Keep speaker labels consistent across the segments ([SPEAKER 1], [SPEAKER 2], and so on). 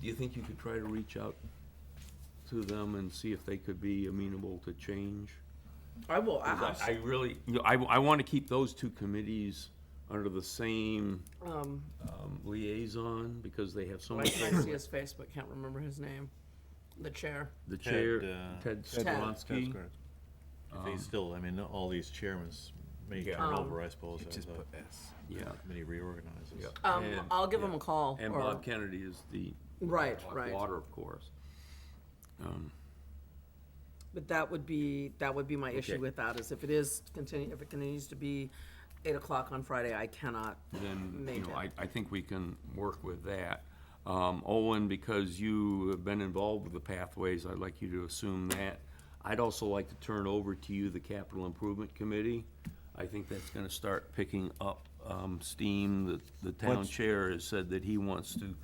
[SPEAKER 1] do you think you could try to reach out to them and see if they could be amenable to change?
[SPEAKER 2] I will
[SPEAKER 1] 'Cause I-
[SPEAKER 2] ask.
[SPEAKER 1] I really, you know, I, I want to keep those two committees under the same
[SPEAKER 2] um,
[SPEAKER 1] um, liaison because they have so
[SPEAKER 2] I I
[SPEAKER 1] much.
[SPEAKER 2] see his face, but can't remember his name. The chair.
[SPEAKER 1] The chair,
[SPEAKER 3] Ted, uh,
[SPEAKER 1] Ted
[SPEAKER 2] Ted.
[SPEAKER 3] That's
[SPEAKER 1] Skronsky.
[SPEAKER 3] correct. If he's still, I mean, all these chairmen may
[SPEAKER 1] Um, Yeah.
[SPEAKER 2] Um,
[SPEAKER 3] turn over, I suppose, as
[SPEAKER 4] Just
[SPEAKER 3] the
[SPEAKER 4] put S.
[SPEAKER 1] Yeah.
[SPEAKER 3] committee reorganizes.
[SPEAKER 1] Yeah.
[SPEAKER 2] Um,
[SPEAKER 1] And-
[SPEAKER 2] I'll give him a call.
[SPEAKER 1] And
[SPEAKER 2] or-
[SPEAKER 1] Bob Kennedy is the.
[SPEAKER 2] Right,
[SPEAKER 1] wa-
[SPEAKER 2] right.
[SPEAKER 1] Water, of course. Um,
[SPEAKER 2] But that would be, that would be my
[SPEAKER 1] Okay.
[SPEAKER 2] issue with that, is if it is continue, if it continues to be eight o'clock on Friday, I cannot.
[SPEAKER 1] Then, you
[SPEAKER 2] Make
[SPEAKER 1] know,
[SPEAKER 2] it.
[SPEAKER 1] I, I think we can work with that. Um, Owen, because you have been involved with the pathways, I'd like you to assume that. I'd also like to turn over to you the capital improvement committee. I think that's gonna start picking up, um, steam. The, the town
[SPEAKER 4] Once-
[SPEAKER 1] chair has said that he wants to,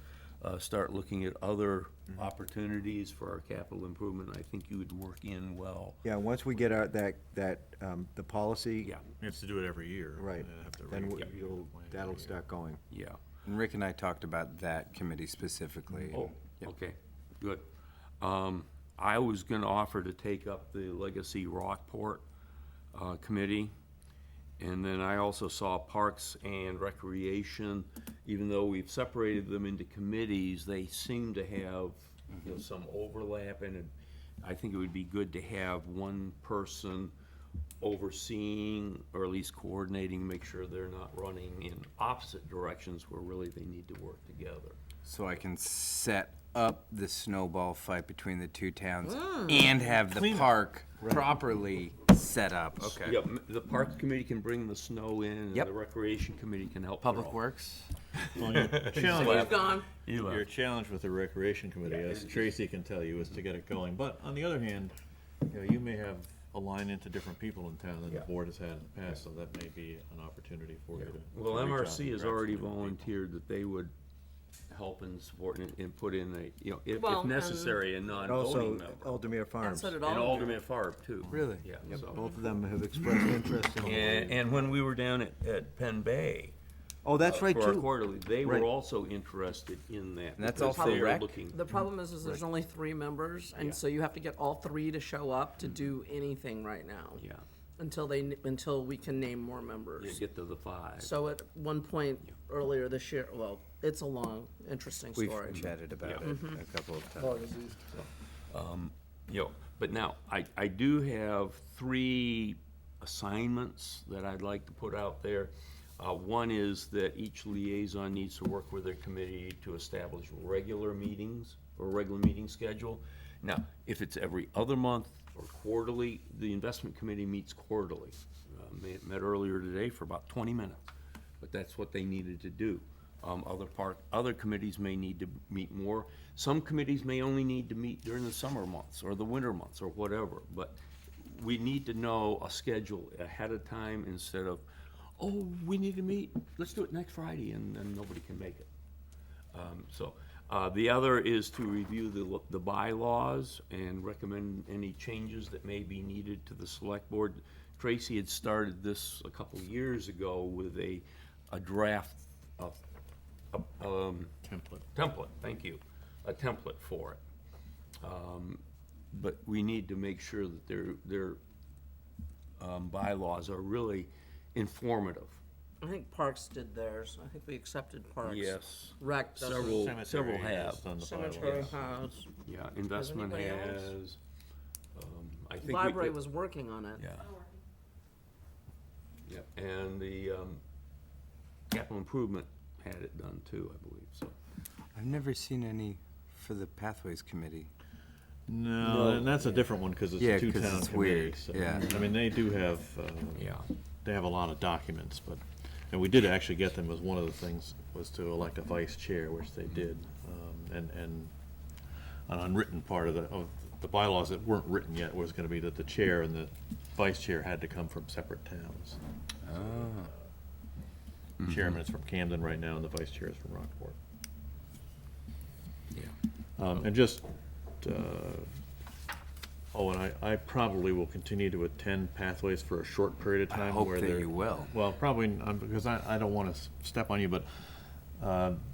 [SPEAKER 1] uh, start looking at other opportunities for our capital improvement. I think you would work in well.
[SPEAKER 4] Yeah, once we get our, that, that, um, the policy.
[SPEAKER 1] Yeah,
[SPEAKER 3] We have to do it every year.
[SPEAKER 4] Right,
[SPEAKER 3] and have to
[SPEAKER 4] then
[SPEAKER 3] re-
[SPEAKER 4] we- you'll, that'll start going.
[SPEAKER 1] yeah.
[SPEAKER 5] And Rick and I talked about that committee specifically.
[SPEAKER 1] Oh, okay, good. Um, I was gonna offer to take up the Legacy Rockport, uh, committee. And then I also saw Parks and Recreation, even though we've separated them into committees, they seem to have, you know, some overlap and it- I think it would be good to have one person overseeing or at least coordinating, make sure they're not running in opposite directions where really they need to work together.
[SPEAKER 5] So I can set up the snowball fight between the two towns
[SPEAKER 4] Mm.
[SPEAKER 5] and have the park properly set up. Okay.
[SPEAKER 1] Yeah, m- the Parks Committee can bring the snow in, and
[SPEAKER 5] Yep.
[SPEAKER 1] the Recreation Committee can help.
[SPEAKER 5] Public
[SPEAKER 1] throw.
[SPEAKER 5] Works?
[SPEAKER 3] Well, your
[SPEAKER 2] He's
[SPEAKER 3] challenge-
[SPEAKER 2] gone.
[SPEAKER 3] Your challenge with the recreation committee, as Tracy can tell you, is to get it going, but on the other hand, you know, you may have a line into different people in town than the
[SPEAKER 1] Yeah.
[SPEAKER 3] board has had in the past, so that may be an opportunity for you to.
[SPEAKER 1] Well,
[SPEAKER 3] to reach out
[SPEAKER 1] MRC
[SPEAKER 3] and
[SPEAKER 1] has
[SPEAKER 3] grab some
[SPEAKER 1] already
[SPEAKER 3] different people.
[SPEAKER 1] volunteered that they would help and support and, and put in a, you know, if,
[SPEAKER 2] Well,
[SPEAKER 1] if
[SPEAKER 2] and-
[SPEAKER 1] necessary, a non-voting
[SPEAKER 4] Also,
[SPEAKER 1] member.
[SPEAKER 4] Aldermere
[SPEAKER 2] And
[SPEAKER 4] Farms,
[SPEAKER 2] so did
[SPEAKER 4] both
[SPEAKER 1] And
[SPEAKER 2] all.
[SPEAKER 1] Alderman Farb too.
[SPEAKER 5] Really?
[SPEAKER 1] Yeah, so.
[SPEAKER 4] of them have expressed interest in.
[SPEAKER 1] And, and when we were down at, at Penn Bay.
[SPEAKER 4] Oh, that's
[SPEAKER 1] uh,
[SPEAKER 4] right,
[SPEAKER 1] For our
[SPEAKER 4] too.
[SPEAKER 1] quarterly, they were
[SPEAKER 4] Right.
[SPEAKER 1] also interested in that.
[SPEAKER 5] And that's
[SPEAKER 1] because
[SPEAKER 5] also
[SPEAKER 1] they are
[SPEAKER 5] rec?
[SPEAKER 1] looking-
[SPEAKER 2] The problem is, is there's only three members, and so you have to get all three to show up to do anything right now.
[SPEAKER 1] Mm-hmm. Yeah,
[SPEAKER 2] Until they, n- until we can name more
[SPEAKER 1] you
[SPEAKER 2] members.
[SPEAKER 1] get to the five.
[SPEAKER 2] So at one point earlier this year, well, it's a long, interesting
[SPEAKER 5] We've
[SPEAKER 2] story.
[SPEAKER 5] chatted about it
[SPEAKER 4] Mm-hmm.
[SPEAKER 5] a couple of
[SPEAKER 4] Oh,
[SPEAKER 5] times.
[SPEAKER 1] Yo, but now, I, I do have three assignments that I'd like to put out there. Uh, one is that each liaison needs to work with their committee to establish regular meetings or regular meeting schedule. Now, if it's every other month or quarterly, the investment committee meets quarterly. Uh, met, met earlier today for about twenty minutes, but that's what they needed to do. Um, other park, other committees may need to meet more. Some committees may only need to meet during the summer months or the winter months or whatever, but we need to know a schedule ahead of time instead of, oh, we need to meet, let's do it next Friday and, and nobody can make it. Um, so, uh, the other is to review the, lo- the bylaws and recommend any changes that may be needed to the select board. Tracy had started this a couple of years ago with a, a draft of, of, um,
[SPEAKER 3] Template.
[SPEAKER 1] template, thank you, a template for it. Um, But we need to make sure that their, their um, bylaws are really informative.
[SPEAKER 2] I think Parks did theirs. I think we accepted Parks.
[SPEAKER 1] Yes.
[SPEAKER 2] Rec doesn't.
[SPEAKER 1] Several,
[SPEAKER 3] Cemetery
[SPEAKER 1] several have.
[SPEAKER 3] is on the
[SPEAKER 2] Cemetery
[SPEAKER 3] bylaws.
[SPEAKER 2] has.
[SPEAKER 1] Yeah, investment
[SPEAKER 2] anybody else?
[SPEAKER 1] has. um, I think we
[SPEAKER 2] Library
[SPEAKER 1] could-
[SPEAKER 2] was working on it.
[SPEAKER 1] Yeah. Yeah, and the um, capital improvement had it done too, I believe, so.
[SPEAKER 5] I've never seen any for the Pathways Committee.
[SPEAKER 3] No, and that's a different one, cause it's
[SPEAKER 5] Yeah,
[SPEAKER 3] a
[SPEAKER 5] 'cause
[SPEAKER 3] two-town
[SPEAKER 5] it's weird,
[SPEAKER 3] committee, so,
[SPEAKER 5] yeah.
[SPEAKER 3] I mean, they do have, uh, they have a lot of documents, but, and we did actually get them, was one of the things, was to elect a vice chair, which they did, um, and, and an unwritten part of the, of the bylaws that weren't written yet was gonna be that the chair and the vice chair had to come from separate towns.
[SPEAKER 5] Ah. Mm-hmm.
[SPEAKER 3] Chairman is from Camden right now, and the vice chair is from Rockport.
[SPEAKER 1] Yeah.
[SPEAKER 3] Um, and just, uh, oh, and I, I probably will continue to attend Pathways for a short period of
[SPEAKER 5] I
[SPEAKER 3] time.
[SPEAKER 5] hope
[SPEAKER 3] where
[SPEAKER 5] that
[SPEAKER 3] they're-
[SPEAKER 5] you will.
[SPEAKER 3] Well, probably, um, because I, I don't want to step on you, but, uh,